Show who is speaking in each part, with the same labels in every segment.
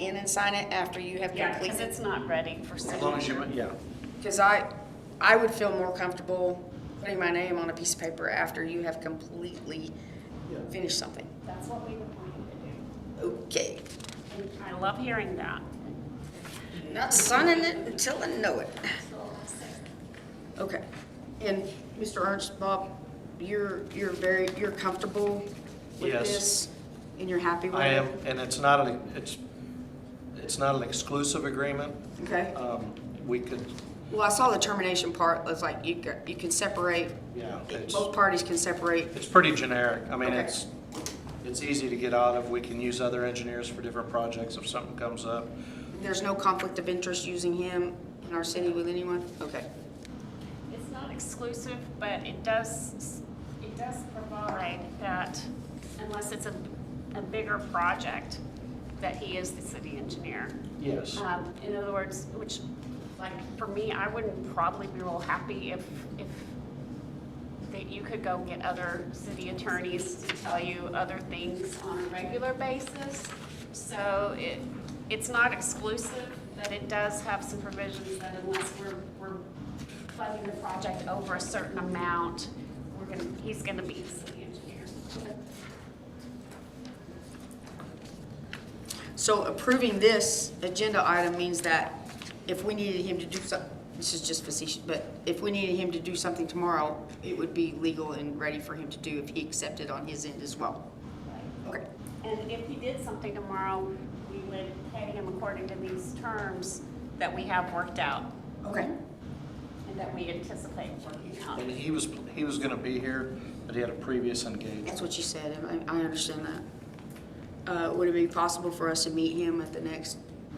Speaker 1: in and sign it after you have
Speaker 2: Yeah, because
Speaker 1: completed?
Speaker 2: it's not ready for
Speaker 3: As long as you,
Speaker 2: signature.
Speaker 3: yeah.
Speaker 1: Because I, I would feel more comfortable putting my name on a piece of paper after you have completely finished something.
Speaker 2: That's what we were planning to
Speaker 1: Okay,
Speaker 2: do. And I love hearing that.
Speaker 1: not signing it until I know it. Okay, and Mr. Ernst, Bob, you're, you're very, you're comfortable with
Speaker 3: Yes.
Speaker 1: this? And you're happy with it?
Speaker 3: I am, and it's not an, it's, it's not an exclusive agreement.
Speaker 1: Okay.
Speaker 3: Um, We could,
Speaker 1: Well, I saw the termination part, it's like you, ca- you can separate,
Speaker 3: yeah, it's,
Speaker 1: both parties can separate.
Speaker 3: it's pretty generic. I mean,
Speaker 1: Okay.
Speaker 3: it's, it's easy to get out of. We can use other engineers for different projects if something comes up.
Speaker 1: There's no conflict of interest using him in our city with anyone? Okay.
Speaker 2: It's not exclusive, but it does, it does provide that unless it's a, a bigger project, that he is the city engineer.
Speaker 3: Yes.
Speaker 2: Um, In other words, which, like, for me, I wouldn't probably be real happy if, if, that you could go get other city attorneys to tell you other things on a regular basis. So it, it's not exclusive, but it does have some provisions that unless we're, we're funding the project over a certain amount, we're gonna, he's gonna be the city engineer.
Speaker 1: So approving this agenda item means that if we needed him to do some, this is just facetious, but if we needed him to do something tomorrow, it would be legal and ready for him to do if he accepted on his end as well. Okay.
Speaker 2: And if he did something tomorrow, we would pay him according to these terms that we have worked out
Speaker 1: Okay.
Speaker 2: and that we anticipate working out.
Speaker 3: And he was, he was gonna be here, but he had a previous engagement.
Speaker 1: That's what you said, and I, I understand that. Uh, would it be possible for us to meet him at the next,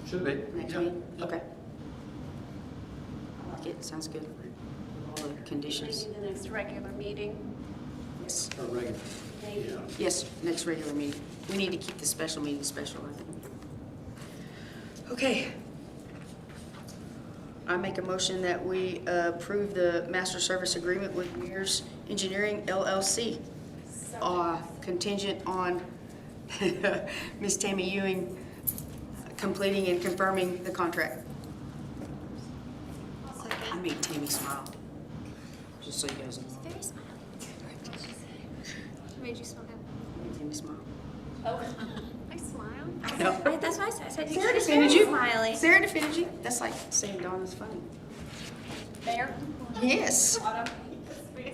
Speaker 3: Should be.
Speaker 1: next
Speaker 3: Yeah.
Speaker 1: meeting? Okay. I like it, sounds good. All the conditions.
Speaker 2: Maybe the next regular meeting.
Speaker 1: Yes.
Speaker 3: Or regular.
Speaker 2: Maybe.
Speaker 3: Yeah.
Speaker 1: Yes, next regular meeting. We need to keep the special meeting special, I think. Okay. I make a motion that we uh, approve the master service agreement with Mears Engineering LLC. Uh, Contingent on Ms. Tammy Ewing completing and confirming the contract. I made Tammy smile, just so you guys know.
Speaker 4: Very smiling. Made you smile.
Speaker 1: I made Tammy smile.
Speaker 2: Oh, I smile.
Speaker 4: I
Speaker 1: No.
Speaker 4: said, I- that's why I said, I said,
Speaker 1: Sarah
Speaker 4: you're
Speaker 1: defended
Speaker 4: very
Speaker 1: you.
Speaker 4: smiley.
Speaker 1: Sarah defended you. That's like saying Donna's funny.
Speaker 2: Mayor?
Speaker 1: Yes.
Speaker 2: Autumn?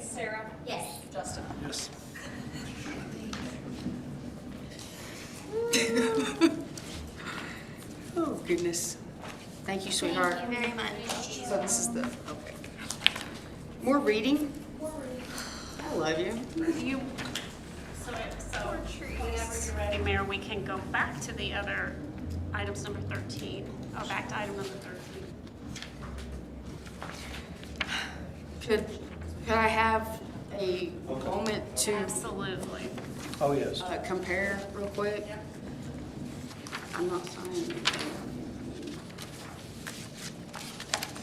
Speaker 2: Sarah?
Speaker 4: Yes.
Speaker 2: Justin?
Speaker 3: Yes.
Speaker 1: Oh goodness. Thank you, sweetheart.
Speaker 4: Thank you very much.
Speaker 1: So this is the okay. More reading. I love you.
Speaker 2: You, so, so whenever you're ready, Mayor, we can go back to the other items number 13. Oh, back to item number 13.
Speaker 1: Could could I have a moment to
Speaker 2: Absolutely.
Speaker 3: Oh, yes.
Speaker 1: uh, compare real quick? I'm not signing. anything.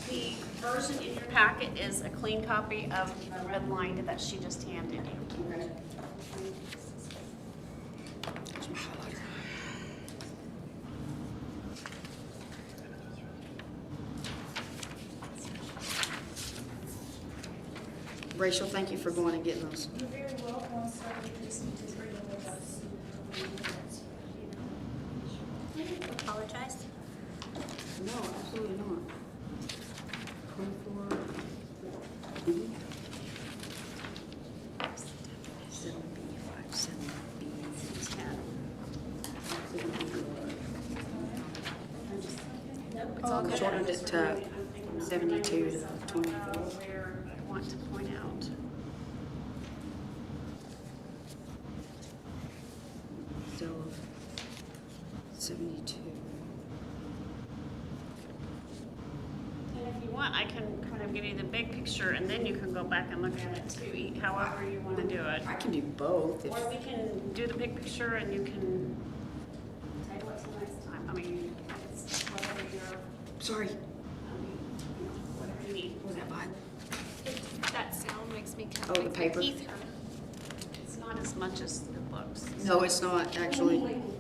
Speaker 2: The version in your packet is a clean copy of the red line that she just handed you.
Speaker 1: Okay. There's my highlighter. Rachel, thank you for going and getting those.
Speaker 5: You're very welcome, sir. We just need to bring it with us.
Speaker 4: Apologize.
Speaker 1: No, absolutely not. Twenty-four. B. Seven B, five, seven B, ten.
Speaker 2: Oh, It's all good.
Speaker 1: Jordan did, uh, 72 to 24.
Speaker 2: Where I want to point out.
Speaker 1: So seventy-two.
Speaker 2: And if you want, I can kind of give you the big picture and then you can go back and look at it too, e- however you want to do it.
Speaker 1: I can do both if,
Speaker 2: Or we can do the big picture and you can table it till next time. I mean, it's whatever you're,
Speaker 1: sorry,
Speaker 2: I mean, you know, whatever you need.
Speaker 1: was that mine?
Speaker 4: That sound makes me kind
Speaker 1: Oh,
Speaker 4: of.
Speaker 1: the paper?
Speaker 2: It's not as much as it looks.
Speaker 1: No, it's not, actually.